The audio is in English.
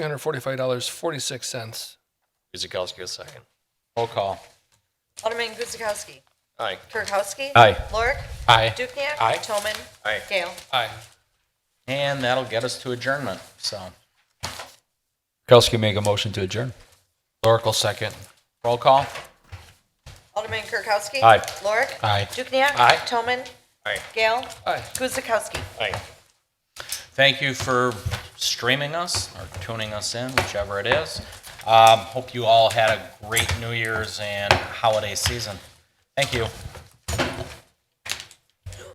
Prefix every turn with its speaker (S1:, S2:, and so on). S1: $345.46.
S2: Guzekowski, a second.
S3: Roll call.
S4: Alderman Guzekowski.
S2: Aye.
S4: Kirkowski.
S3: Aye.
S4: Lorik.
S3: Aye.
S4: Dukenyak.
S3: Aye.
S4: Toman.
S2: Aye.
S4: Gale.
S1: Aye.
S3: And that'll get us to adjournment, so. Kirkowski make a motion to adjourn. Oracle second. Roll call.
S4: Alderman Kirkowski.
S3: Aye.
S4: Lorik.
S3: Aye.
S4: Dukenyak.
S3: Aye.
S4: Toman.
S2: Aye.
S4: Gale.
S1: Aye.
S4: Guzekowski.
S2: Aye.
S3: Thank you for streaming us or tuning us in, whichever it is. Um, hope you all had a great New Year's and holiday season. Thank you.